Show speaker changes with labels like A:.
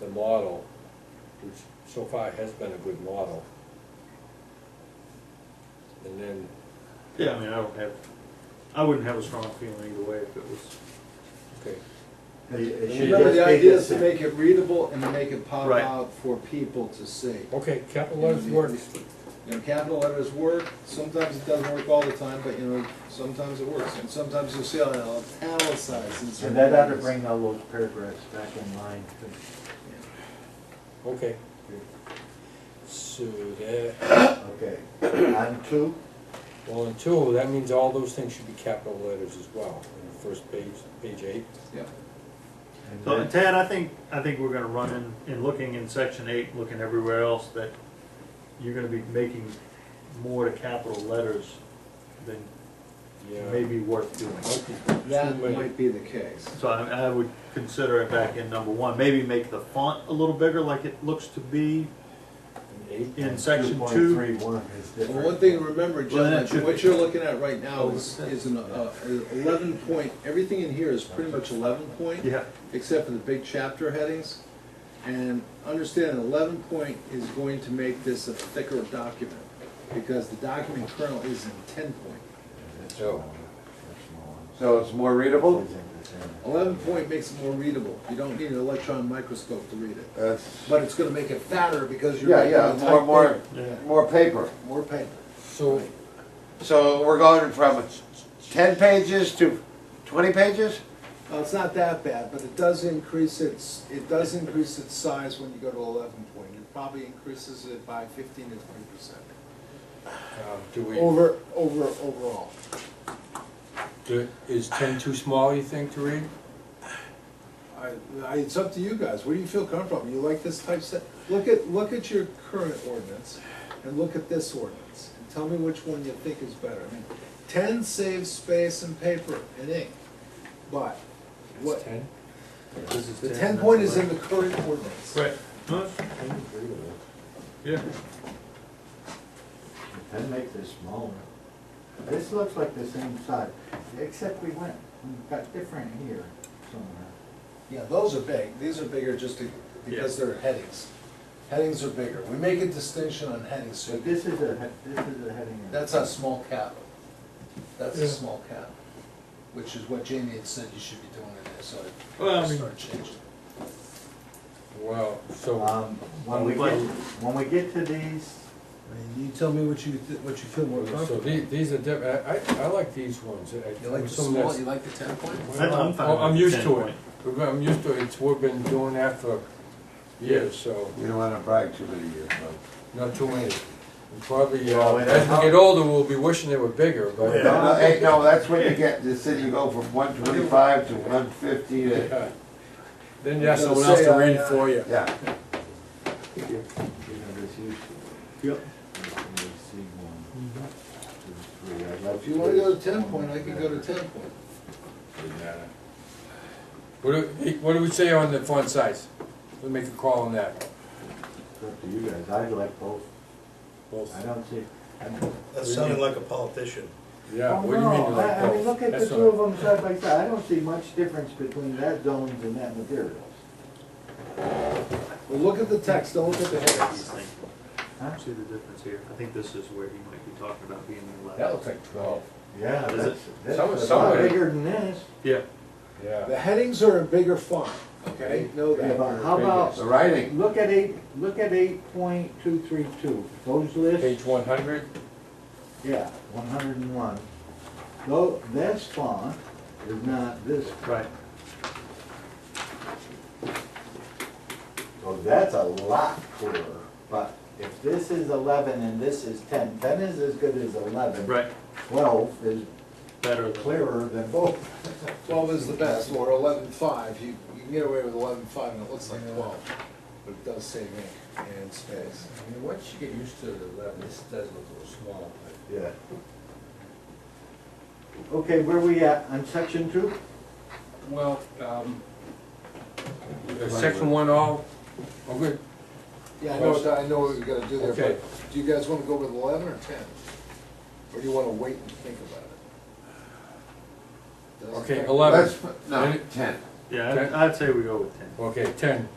A: the model, which so far has been a good model. And then,
B: Yeah, I mean, I don't have, I wouldn't have a strong feeling either way if it was.
A: okay,
C: Remember, the idea is to make it readable and to make it pop
B: Right.
C: out for people to see.
A: okay, capital letters works,
C: You know, capital letters work, sometimes it doesn't work all the time, but you know, sometimes it works, and sometimes you'll see oh, it italicized in
D: And
C: certain
D: that ought to
C: areas.
D: bring all those paragraphs back in line.
A: okay. So that,
D: Okay, on two,
A: Well, in two, that means all those things should be capital letters as well, in the first page, page eight.
C: Yeah,
D: and
B: So,
D: then,
B: and Tad, I think, I think we're gonna run in, in looking in section eight, looking everywhere else, that you're gonna be making more to capital letters than may
A: Yeah.
B: be worth doing.
A: Might be too
C: that
A: many.
C: might be the case.
B: So I, I would consider it back in number one, maybe make the font a little bigger like it looks to be
A: Eight,
B: in section
D: Two
B: two.
D: point three one is different.
C: Well, one thing to remember,
B: Well,
C: John,
B: that should
C: that what
B: be- Oh,
C: you're looking at right now is, is an uh, eleven point, everything in here is pretty much eleven point.
B: Yeah,
C: except for the big chapter headings. And understand, eleven point is going to make this a thicker document, because the document currently is in ten point.
D: That's
A: So-
D: small, that's small.
E: So it's more readable?
C: Eleven point makes it more readable, you don't need an electron microscope to read it.
E: That's,
C: But it's gonna make it fatter because you're.
E: yeah, yeah,
C: making it
E: more,
C: type
E: more,
B: yeah.
E: more paper.
C: big, More paper.
A: So,
E: So we're going from ten pages to twenty pages?
C: Well, it's not that bad, but it does increase its, it does increase its size when you go to eleven point. It probably increases it by fifteen to twenty percent.
A: uh, do we,
C: Over, over, overall.
A: do- is ten too small, you think, to read?
C: I, I, it's up to you guys, where do you feel comfortable, you like this type set? Look at, look at your current ordinance, and look at this ordinance, and tell me which one you think is better. I mean, Ten saves space and paper and ink, but what,
A: Ten?
B: This is
C: the ten point is in the current ordinance.
B: Right. No,
A: I agree with that.
B: Yeah.
D: Then make this smaller. This looks like the same size, except we went, we got different here somewhere.
C: Yeah, those are big, these are bigger just to- because they're headings. Headings are bigger, we make a distinction on headings, so
D: But this is a, he- this is a heading. of-
C: that's a small cap. That's a
B: Yeah.
C: small cap, which is what Jamie had said you should be doing in there, so
B: Well,
C: I
B: I mean-
C: start changing.
A: Well, so,
D: Um, when we get, when we get to these,
C: I mean, you tell me what you, th- what you feel more
A: so
C: comfortable.
A: the- these are, diff- I, I- I like these ones. I-
C: You like the
A: some
C: small,
A: that's-
C: you like the ten point?
B: I'm- I'm fine
A: I'm
B: with
A: used
B: 10
A: to it,
B: point.
A: I'm used to it, It's- we've been doing that for years, so,
E: You don't wanna brag too many years, no.
A: not too many. And Probably, uh,
D: Well, it-
A: as we get older, we'll be wishing they were bigger,
E: No,
A: but,
D: Yeah.
E: no, hey, no, that's when you get, the city go from one twenty-five to one fifty to,
A: yeah. Then you have someone else to read it for you.
E: yeah.
D: you know, this useful.
B: Yep.
A: Mm-hmm.
C: If you wanna go to ten point, I can go to ten point.
A: What do, hey, what do we say on the font size? We'll make a call on that.
D: It's up to you guys, I like both, I don't see.
F: That sounded like a politician.
A: Yeah,
D: Oh,
A: what do you
D: no,
A: mean like
D: I- I mean,
A: both?
D: look at the
A: That's
D: two
A: all.
D: of them side by side, I don't see much difference between that zones and that materials.
C: Well, look at the text, don't look at the headings.
D: Huh?
B: See the difference here? I think this is where he might be talking about being in the lab.
A: That looks like twelve.
D: Yeah,
B: Is
D: that's, that's
A: Some-
D: a
A: some
D: lot
A: of it-
D: bigger than this.
B: Yeah,
A: Yeah.
C: The headings are in bigger font, okay, know
D: Yeah,
C: that.
D: but How
E: The
D: about,
E: writing,
D: look at eight, look at eight point two three two, those lists,
A: Page one hundred,
D: yeah, one hundred and one. Though, this font is not this,
B: right.
D: so oh, that's a lot clearer, but if this is eleven and this is ten, ten is as good as eleven.
B: Right,
D: Twelve is
B: better than.
D: clearer than both.
C: Twelve is the best, or eleven-five, you, you can get away with eleven-five and it looks like twelve, but it does save ink and space.
A: I mean, once you get used to the eleven, this does look a little small, but.
D: Yeah. Okay, where we at, on section two?
A: Well, um. Section one all, oh, good.
C: Yeah, I know, what- I know what we gotta do there,
A: Okay.
C: but do you guys wanna go with eleven or ten? Or do you wanna wait and think about it? Doesn't
A: Okay,
C: matter.
A: eleven.
E: let's, no, ten.
B: Yeah, I'd- I'd say we go with ten.
A: Okay, ten.